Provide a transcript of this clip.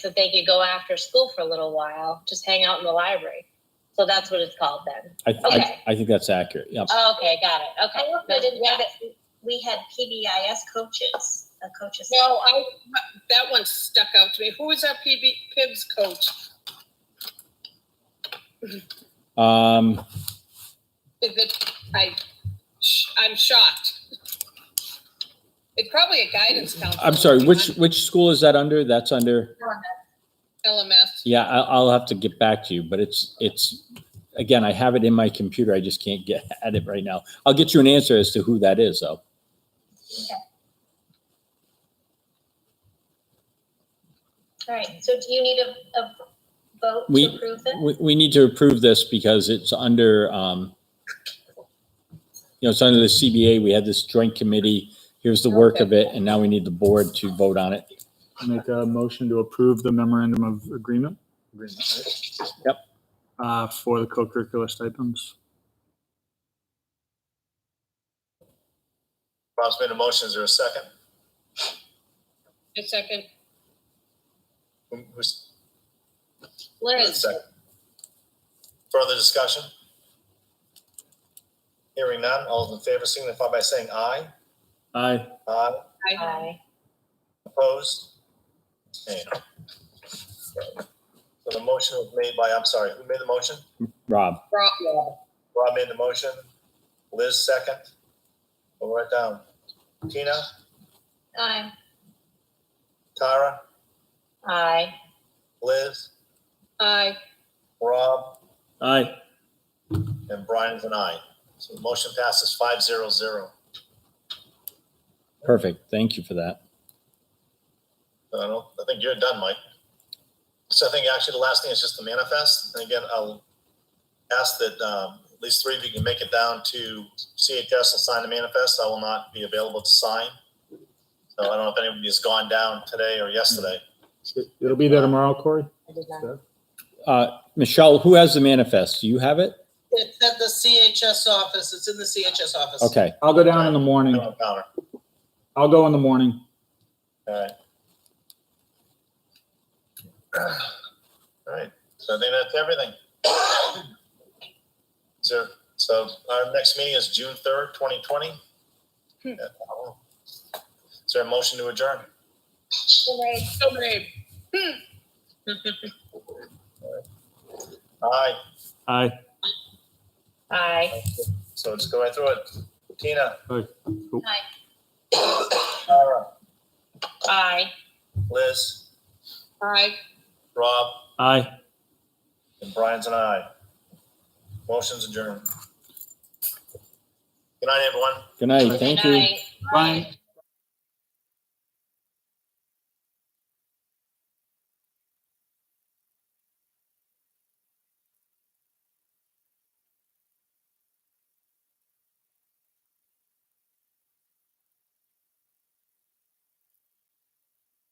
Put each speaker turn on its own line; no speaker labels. that they could go after school for a little while, just hang out in the library. So that's what it's called then.
I, I,
Okay.
I think that's accurate. Yep.
Oh, okay, got it.
I
Okay.
also didn't
Yeah.
know that we had PBIS coaches, a coaches.
No, I, that one stuck out to me. Who was our PB, PIBS coach?
Um,
Is it, I, sh- I'm shocked. It's probably a guidance counselor.
I'm sorry, which, which school is that under? That's under,
LMS.
yeah, I, I'll have to get back to you, but it's, it's, again, I have it in my computer. I just can't get at it right now. I'll get you an answer as to who that is though.
All right, so do you need a, a vote
We-
to approve this?
We, we need to approve this because it's under, um, you know, it's under the CBA. We had this joint committee. Here's the work of it. And now we need the board to vote on it.
Make a motion to approve the memorandum of agreement.
Yep.
Uh, for the co-curricular stipends.
Bob's made a motion. Is there a second?
A second.
Who- Who's
Liz,
second? Further discussion? Hearing none, all those in favor signify by saying aye.
Aye.
Aye.
I,
hi.
Opposed? Abstained. So the motion was made by, I'm sorry, who made the motion?
Rob?
Rob,
Rob made the motion. Liz second. We'll write down. Tina,
Aye.
Tara,
Aye.
Liz,
I,
Rob,
Aye.
and Brian's an aye. So the motion passes five zero zero.
Perfect. Thank you for that.
I don't, I think you're done, Mike. So I think actually the last thing is just the manifest. And again, I'll ask that um, at least three of you can make it down to CHS and sign the manifest. I will not be available to sign. So I don't know if anybody has gone down today or yesterday.
It'll be there tomorrow, Corey?
I did not.
Uh, Michelle, who has the manifest? Do you have it?
It's at the CHS office. It's in the CHS office.
Okay.
I'll go down in the morning.
No encounter.
I'll go in the morning.
All right. All right, so I think that's everything. So, so our next meeting is June third, twenty twenty. Is there a motion to adjourn?
so brave.
Aye,
Aye.
Aye.
so just go right through it. Tina?
Aye. Cool.
Tara,
Aye.
Liz,
I.
Rob,
Aye.
and Brian's an aye. Motion's adjourned. Good night, everyone.
Good night. Thank you.
Aye.
Brian,